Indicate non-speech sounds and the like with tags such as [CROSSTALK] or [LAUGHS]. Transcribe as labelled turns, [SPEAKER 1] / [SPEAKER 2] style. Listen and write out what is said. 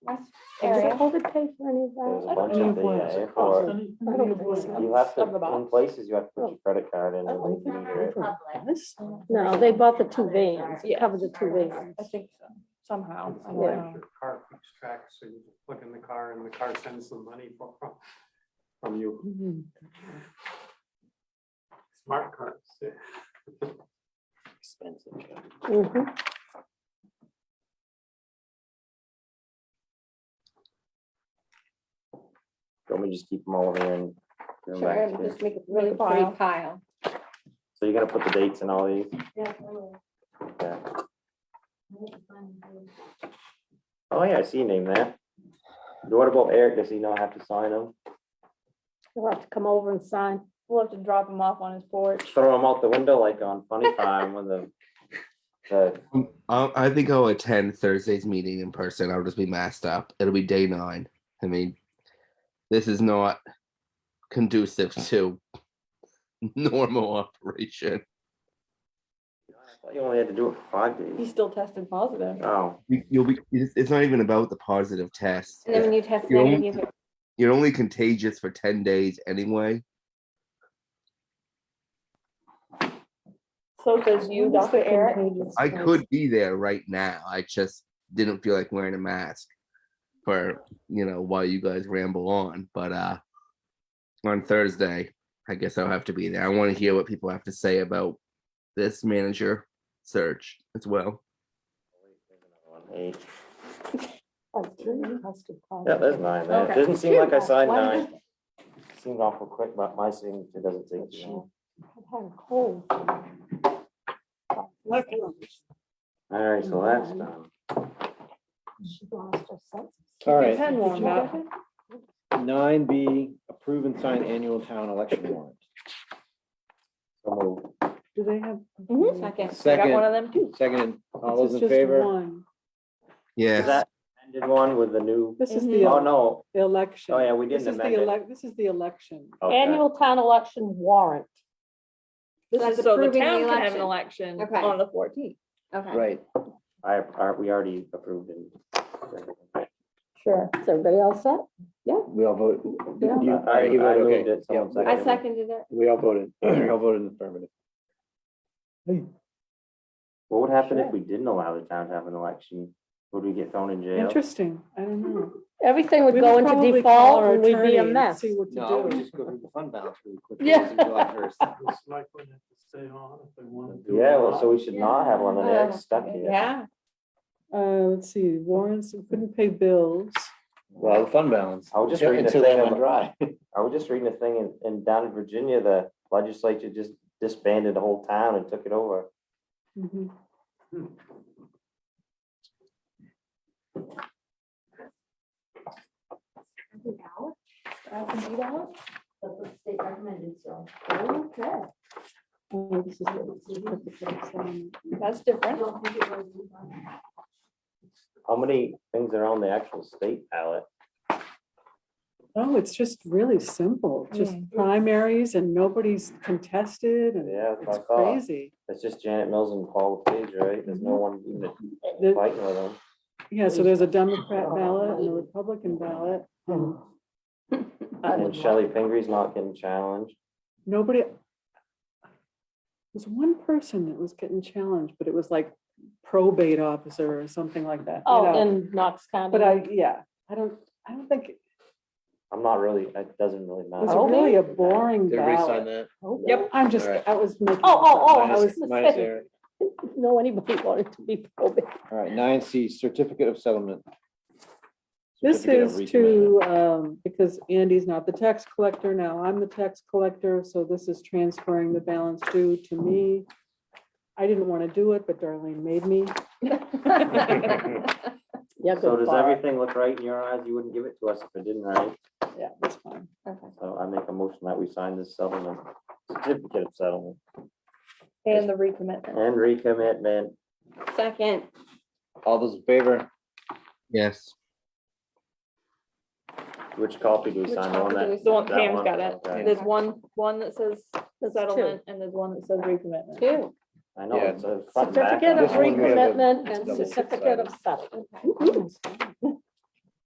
[SPEAKER 1] area.
[SPEAKER 2] Does COVID pay for any of
[SPEAKER 3] There's
[SPEAKER 2] that?
[SPEAKER 3] a bunch of the, uh, for,
[SPEAKER 2] I don't think so.
[SPEAKER 3] you have to,
[SPEAKER 2] Of the box. Oh.
[SPEAKER 3] in places, you have to put your credit card in.
[SPEAKER 2] I
[SPEAKER 3] and
[SPEAKER 2] don't
[SPEAKER 3] they can use it.
[SPEAKER 2] No, they bought the two vans,
[SPEAKER 1] Yeah.
[SPEAKER 2] covered the two vans.
[SPEAKER 1] I think so, somehow. I don't
[SPEAKER 2] Yeah.
[SPEAKER 1] know.
[SPEAKER 4] Your car keeps track, so you just plug in the car and the car sends the money from, from- from you. Smart cars. yeah.
[SPEAKER 3] Expensive.
[SPEAKER 2] Mhm.
[SPEAKER 3] Don't we just keep them all here and? bring 'em
[SPEAKER 1] Sure,
[SPEAKER 3] back
[SPEAKER 1] and
[SPEAKER 3] to you?
[SPEAKER 1] just make it really
[SPEAKER 5] Big
[SPEAKER 1] file.
[SPEAKER 5] pile.
[SPEAKER 3] So you gotta put the dates in all these? Yeah. Oh, yeah, I see your name there. What about Eric? Does he not have to sign them?
[SPEAKER 2] We'll have to come over and sign.
[SPEAKER 1] We'll have to drop him off on his porch.
[SPEAKER 3] Throw them out the window like on Funny Time with the, the,
[SPEAKER 6] Um, I, I think I'll attend Thursday's meeting in person. I'll just be masked up. It'll be day nine. I mean, this is not conducive [LAUGHS] to normal operation.
[SPEAKER 3] I thought you only had to do it for five
[SPEAKER 1] He
[SPEAKER 3] days.
[SPEAKER 1] still tested positive.
[SPEAKER 3] Oh,
[SPEAKER 6] You- You'll be. It's it's not even about the positive test.
[SPEAKER 5] And then when you test
[SPEAKER 6] You're
[SPEAKER 5] negative,
[SPEAKER 6] only-
[SPEAKER 5] you get
[SPEAKER 6] You're only contagious for ten days anyway.
[SPEAKER 1] So says you, Dr. Eric.
[SPEAKER 6] I could be there right now. I just didn't feel like wearing a mask for you know while you guys ramble on. But uh on Thursday, I guess I'll have to be there. I want to hear what people have to say about this manager search as well.
[SPEAKER 3] eight.
[SPEAKER 2] That's true, that's good.
[SPEAKER 3] Yeah, there's nine there.
[SPEAKER 1] Okay.
[SPEAKER 3] Doesn't seem like I signed
[SPEAKER 2] Why
[SPEAKER 3] nine. Seemed awful quick, but my signature doesn't take too long.
[SPEAKER 2] I had a cold.
[SPEAKER 3] All right, so that's done.
[SPEAKER 2] She lost her senses.
[SPEAKER 7] All
[SPEAKER 1] Your
[SPEAKER 7] right.
[SPEAKER 1] pen warmed up.
[SPEAKER 7] Nine B, approve and sign annual town election warrant.
[SPEAKER 3] So moved.
[SPEAKER 8] Do they have?
[SPEAKER 2] Mm-hmm.
[SPEAKER 1] Mhm.
[SPEAKER 5] second.
[SPEAKER 1] I got one
[SPEAKER 7] Second,
[SPEAKER 1] of them too.
[SPEAKER 7] second, all
[SPEAKER 8] This
[SPEAKER 7] those
[SPEAKER 8] is
[SPEAKER 7] in
[SPEAKER 8] just
[SPEAKER 7] favor?
[SPEAKER 8] one.
[SPEAKER 3] Is
[SPEAKER 6] Yeah,
[SPEAKER 3] that ended one with the new?
[SPEAKER 8] This is
[SPEAKER 3] Oh,
[SPEAKER 2] Mm-hmm.
[SPEAKER 8] the
[SPEAKER 3] no.
[SPEAKER 8] election.
[SPEAKER 3] Oh, yeah, we
[SPEAKER 8] This
[SPEAKER 3] didn't
[SPEAKER 8] is the
[SPEAKER 3] amend it.
[SPEAKER 8] elec, this is the election.
[SPEAKER 3] Okay.
[SPEAKER 2] Annual town election warrant.
[SPEAKER 5] So that's
[SPEAKER 1] So the
[SPEAKER 5] approving the
[SPEAKER 1] town can have an election
[SPEAKER 5] Okay.
[SPEAKER 1] on the fourteenth.
[SPEAKER 5] Okay.
[SPEAKER 7] Right,
[SPEAKER 3] I, I- we already approved it.
[SPEAKER 2] Sure. Is everybody else set?
[SPEAKER 7] we all vote. you-
[SPEAKER 2] Yeah.
[SPEAKER 7] you- all
[SPEAKER 3] I-
[SPEAKER 7] right, you
[SPEAKER 3] I
[SPEAKER 7] voted,
[SPEAKER 3] moved
[SPEAKER 7] okay.
[SPEAKER 3] it, someone
[SPEAKER 7] Yeah,
[SPEAKER 5] I seconded it.
[SPEAKER 7] We all voted, we all voted in affirmative.
[SPEAKER 3] What would happen if we didn't allow the town to have an election? Would we get thrown in jail?
[SPEAKER 8] Interesting, I don't know.
[SPEAKER 2] Everything would
[SPEAKER 8] We
[SPEAKER 2] go
[SPEAKER 8] would
[SPEAKER 2] into
[SPEAKER 8] probably call
[SPEAKER 2] default
[SPEAKER 8] our
[SPEAKER 2] and we'd
[SPEAKER 8] attorney
[SPEAKER 2] be a
[SPEAKER 8] and
[SPEAKER 2] mess.
[SPEAKER 8] See what
[SPEAKER 7] No,
[SPEAKER 8] to
[SPEAKER 7] we
[SPEAKER 8] do.
[SPEAKER 7] just go through the fund balance really quick.
[SPEAKER 2] Yeah.
[SPEAKER 7] It was July 1st.
[SPEAKER 4] The selectmen have to stay on if they want to do it.
[SPEAKER 3] Yeah,
[SPEAKER 4] or
[SPEAKER 3] well,
[SPEAKER 4] not.
[SPEAKER 3] so we should not have one, and
[SPEAKER 5] Uh,
[SPEAKER 3] they're stuck here.
[SPEAKER 5] Yeah.
[SPEAKER 8] Uh, let's see, warrants, we couldn't pay bills.
[SPEAKER 7] Well, the fund balance.
[SPEAKER 3] I was just
[SPEAKER 7] Yeah,
[SPEAKER 3] reading a
[SPEAKER 7] until they
[SPEAKER 3] thing
[SPEAKER 7] went dry.
[SPEAKER 3] [LAUGHS] I was just reading a thing in, in down in Virginia, the legislature just disbanded the whole town and took it over.
[SPEAKER 2] Mm-hmm.
[SPEAKER 8] Mhm. Oh, this is what-
[SPEAKER 1] That's different.
[SPEAKER 3] How many things are on the actual state ballot?
[SPEAKER 8] Oh, it's just really simple, just primaries and nobody's contested and
[SPEAKER 3] Yeah, that's
[SPEAKER 8] it's
[SPEAKER 3] what I thought.
[SPEAKER 8] crazy.
[SPEAKER 3] It's just Janet Mills and Paul LePage, right? There's no one even
[SPEAKER 8] The-
[SPEAKER 3] fighting with them.
[SPEAKER 8] Yeah, so there's a Democrat ballot and a Republican ballot. and
[SPEAKER 3] And Shelley Fingre's not getting challenged.
[SPEAKER 8] Nobody. There's one person that was getting challenged, but it was like probate officer or something like that. you know.
[SPEAKER 2] Oh, in Knox County.
[SPEAKER 8] But I, yeah, I don't, I don't think, it
[SPEAKER 3] I'm not really, it doesn't really matter.
[SPEAKER 8] was really a boring
[SPEAKER 7] Did everybody sign
[SPEAKER 8] ballot.
[SPEAKER 7] that?
[SPEAKER 8] Yep, I'm just,
[SPEAKER 7] Alright.
[SPEAKER 8] I was making.
[SPEAKER 2] Oh, oh, oh, I
[SPEAKER 7] Minus-
[SPEAKER 2] was gonna
[SPEAKER 7] minus
[SPEAKER 2] say,
[SPEAKER 7] Eric.
[SPEAKER 2] didn't know anybody [LAUGHS] wanted to be probate.
[SPEAKER 7] All right, nine C, certificate of settlement.
[SPEAKER 8] This
[SPEAKER 7] Certificate of
[SPEAKER 8] is
[SPEAKER 7] recommitment.
[SPEAKER 8] to, um, because Andy's not the tax collector now, I'm the tax collector, so this is transferring the balance due to me. I didn't want to do it, but Darlene made me.
[SPEAKER 1] [LAUGHS]
[SPEAKER 2] Yeah,
[SPEAKER 3] So
[SPEAKER 2] good
[SPEAKER 3] does
[SPEAKER 2] for
[SPEAKER 3] everything look right in your eyes? You wouldn't give it to us if it didn't, right?
[SPEAKER 8] Yeah, that's fine.
[SPEAKER 3] So I make a motion that we sign this settlement, certificate of settlement
[SPEAKER 1] And the recommitment.
[SPEAKER 3] and recommitment.
[SPEAKER 5] Second.
[SPEAKER 7] All those in favor?
[SPEAKER 6] yes.
[SPEAKER 3] Which copy do we
[SPEAKER 5] Which
[SPEAKER 3] sign on
[SPEAKER 5] copy do we
[SPEAKER 3] that?
[SPEAKER 5] sign?
[SPEAKER 1] The one
[SPEAKER 3] That
[SPEAKER 1] Pam's
[SPEAKER 3] one?
[SPEAKER 1] got it.
[SPEAKER 3] Okay.
[SPEAKER 1] There's one, one that says
[SPEAKER 2] There's two.
[SPEAKER 1] settlement and there's one that says recommitment.
[SPEAKER 5] Two.
[SPEAKER 3] I know,
[SPEAKER 7] Yeah.
[SPEAKER 3] it's a front and back.
[SPEAKER 2] Certificate of
[SPEAKER 7] This one we have a
[SPEAKER 2] recommitment and
[SPEAKER 7] double
[SPEAKER 2] certificate of settlement.